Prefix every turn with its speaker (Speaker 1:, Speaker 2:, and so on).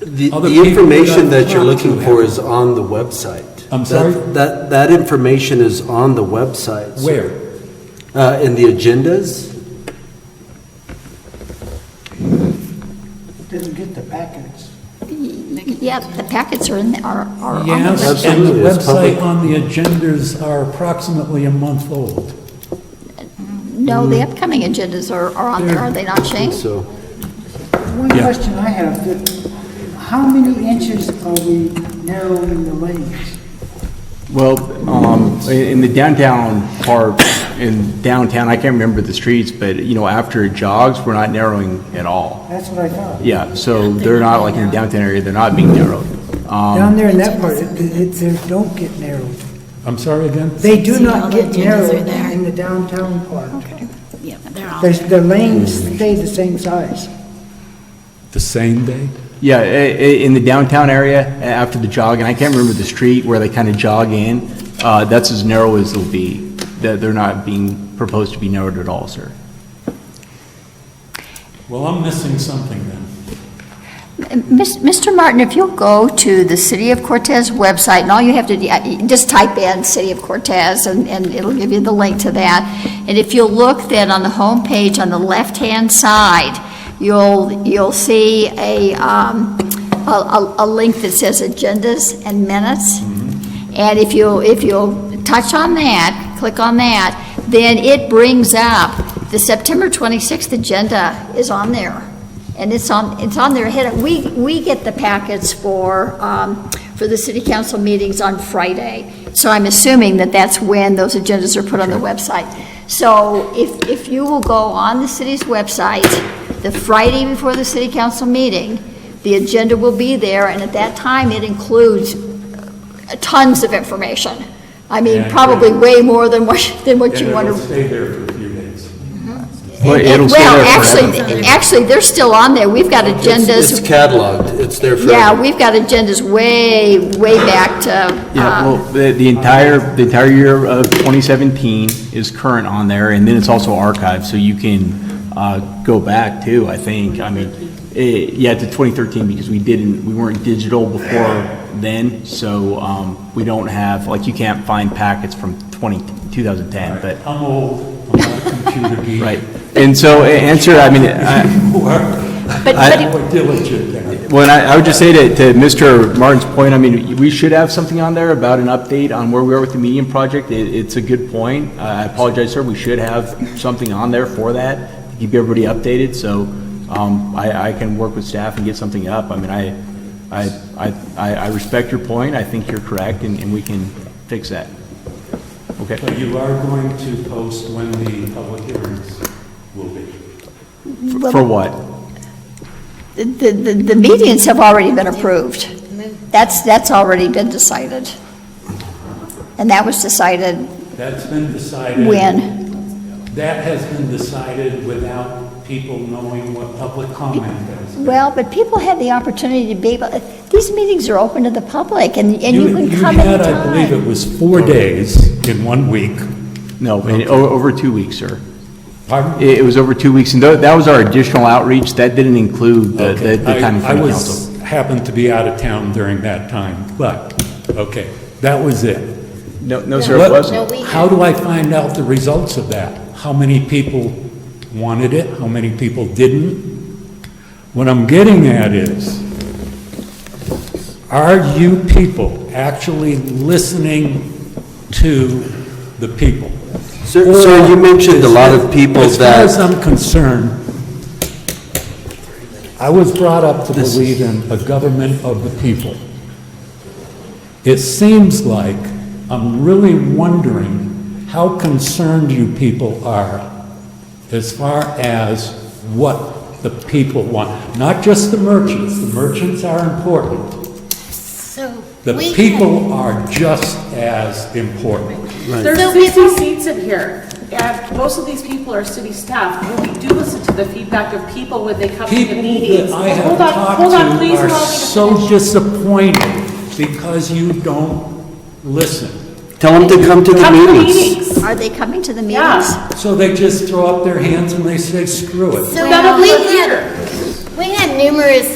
Speaker 1: The,
Speaker 2: Other
Speaker 1: the
Speaker 2: people
Speaker 1: information
Speaker 2: that-
Speaker 1: that you're looking for is on the website.
Speaker 2: I'm
Speaker 1: That-
Speaker 2: sorry?
Speaker 1: That, that information is on the website. sir.
Speaker 2: Where?
Speaker 1: Uh, in the agendas,
Speaker 3: Didn't get the packets.
Speaker 4: Yeah, the packets are in, the- are, are on the
Speaker 2: Yes,
Speaker 4: website.
Speaker 2: and the
Speaker 1: Absolutely, it's
Speaker 2: website
Speaker 1: public.
Speaker 2: on the agendas are approximately a month old.
Speaker 4: No, the upcoming agendas are, are on there, are they not, Shane?
Speaker 1: so,
Speaker 3: One
Speaker 2: Yeah.
Speaker 3: question I have, that how many inches are we narrowing the lanes?
Speaker 5: Well, um, in in the downtown part, in downtown, I can't remember the streets, but, you know, after it jogs, we're not narrowing at all.
Speaker 3: That's what I thought.
Speaker 5: Yeah, so they're not, like in the downtown area, they're not being narrowed. Um,
Speaker 3: Down there in that part, it, it, they don't get narrowed.
Speaker 2: I'm sorry again?
Speaker 3: They do
Speaker 6: See, all
Speaker 3: not
Speaker 6: the
Speaker 3: get
Speaker 6: agendas are
Speaker 3: narrowed
Speaker 6: there.
Speaker 3: in the downtown part.
Speaker 6: Yeah, they're all
Speaker 3: There's, the
Speaker 6: there.
Speaker 3: lanes stay the same size.
Speaker 2: The same day?
Speaker 5: Yeah, i- i- in the downtown area, a- after the jog, and I can't remember the street where they kind of jog in, uh, that's as narrow as they'll be. They're they're not being, proposed to be narrowed at all, sir.
Speaker 2: Well, I'm missing something then.
Speaker 4: Mis- Mr. Martin, if you'll go to the City of Cortez website, and all you have to do, uh, just type in City of Cortez, and, and it'll give you the link to that. And if you'll look then on the homepage, on the left-hand side, you'll, you'll see a, um, a, a- a link that says Agendas and Minutes. And if you, if you'll touch on that, click on that, then it brings up, the September 26th agenda is on there. And it's on, it's on their head. We, we get the packets for, um, for the city council meetings on Friday. So I'm assuming that that's when those agendas are put on the website. So if, if you will go on the city's website, the Friday before the city council meeting, the agenda will be there, and at that time, it includes uh, tons of information. I
Speaker 2: Yeah, I
Speaker 4: mean,
Speaker 2: agree.
Speaker 4: probably way more than what, than what you want to.
Speaker 2: stay there for a few days.
Speaker 5: Well, it'll stay
Speaker 4: Well,
Speaker 5: there forever.
Speaker 4: actually, actually, they're still on there. We've got
Speaker 1: it's it's
Speaker 4: agendas,
Speaker 1: cataloged, it's there for.
Speaker 4: yeah, we've got agendas way, way back to,
Speaker 5: Yeah,
Speaker 4: uh,
Speaker 5: well, the, the entire, the entire year of 2017 is current on there, and then it's also archived, so you can uh, go back too, I think. I mean, eh, yeah, to 2013, because we didn't, we weren't digital before then, so um, we don't have, like, you can't find packets from 20 2010, but,
Speaker 2: I'm old, I'm not a computer geek.
Speaker 5: right. And so, eh, answer, I mean, I-
Speaker 2: You are.
Speaker 4: but, but it-
Speaker 2: More diligent than
Speaker 5: Well, and I, I would just say to, to Mr. Martin's point, I mean, we should have something on there about an update on where we are with the medium project. It, it's a good point. Uh, I apologize, sir. We should have something on there for that, to keep everybody updated, so, um, I, I can work with staff and get something up. I mean, I, I, I, I I respect your point. I think you're correct, and, and we can fix that. Okay?
Speaker 2: But you are going to post when the public hearings will be.
Speaker 5: For- For what?
Speaker 4: the, the, the meetings have already been approved. That's, that's already been decided. And that was decided
Speaker 2: That's been decided.
Speaker 4: when,
Speaker 2: That has been decided without people knowing what public comment is.
Speaker 4: well, but people had the opportunity to be able, these meetings are open to the public, and, and you can come
Speaker 2: had, I believe
Speaker 4: anytime.
Speaker 2: it was four days in one week.
Speaker 5: No, in- o- over two weeks, sir.
Speaker 2: Pardon?
Speaker 5: It, it was over two weeks, and tho- that was our additional outreach. That didn't include the, the
Speaker 2: Okay,
Speaker 5: the
Speaker 2: I-
Speaker 5: time in front of council.
Speaker 2: I was, happened to be out of town during that time, but, okay, that was it.
Speaker 5: No, no, sir,
Speaker 2: What-
Speaker 5: it wasn't.
Speaker 2: How do I find out the results of that? How many people wanted it, how many people didn't? What I'm getting at is, are you people actually listening to the people?
Speaker 1: Sir, sir, you mentioned a lot of people
Speaker 2: As far as
Speaker 1: that,
Speaker 2: I'm concerned, I was brought up to believe in a government of the people. It seems like, I'm really wondering how concerned you people are as far as what the people want. Not just the merchants, the merchants are important.
Speaker 6: So
Speaker 2: The
Speaker 6: we
Speaker 2: people are just as important.
Speaker 7: There's 60 seats in here, and most of these people are city staff. When we do listen to the feedback of people when they come to the
Speaker 2: People
Speaker 7: meetings.
Speaker 2: that I have
Speaker 7: Hold on, hold on,
Speaker 2: talked
Speaker 7: please
Speaker 2: to are
Speaker 7: allow me to
Speaker 2: so
Speaker 7: finish.
Speaker 2: disappointed because you don't listen.
Speaker 1: tell them to come to the
Speaker 7: Come to the
Speaker 1: meetings.
Speaker 7: meetings.
Speaker 4: Are they coming to the
Speaker 7: Yeah.
Speaker 4: meetings?
Speaker 2: So they just throw up their hands and they say, screw it.
Speaker 6: So
Speaker 7: None of
Speaker 6: we
Speaker 7: us are
Speaker 6: had,
Speaker 7: here.
Speaker 6: We had numerous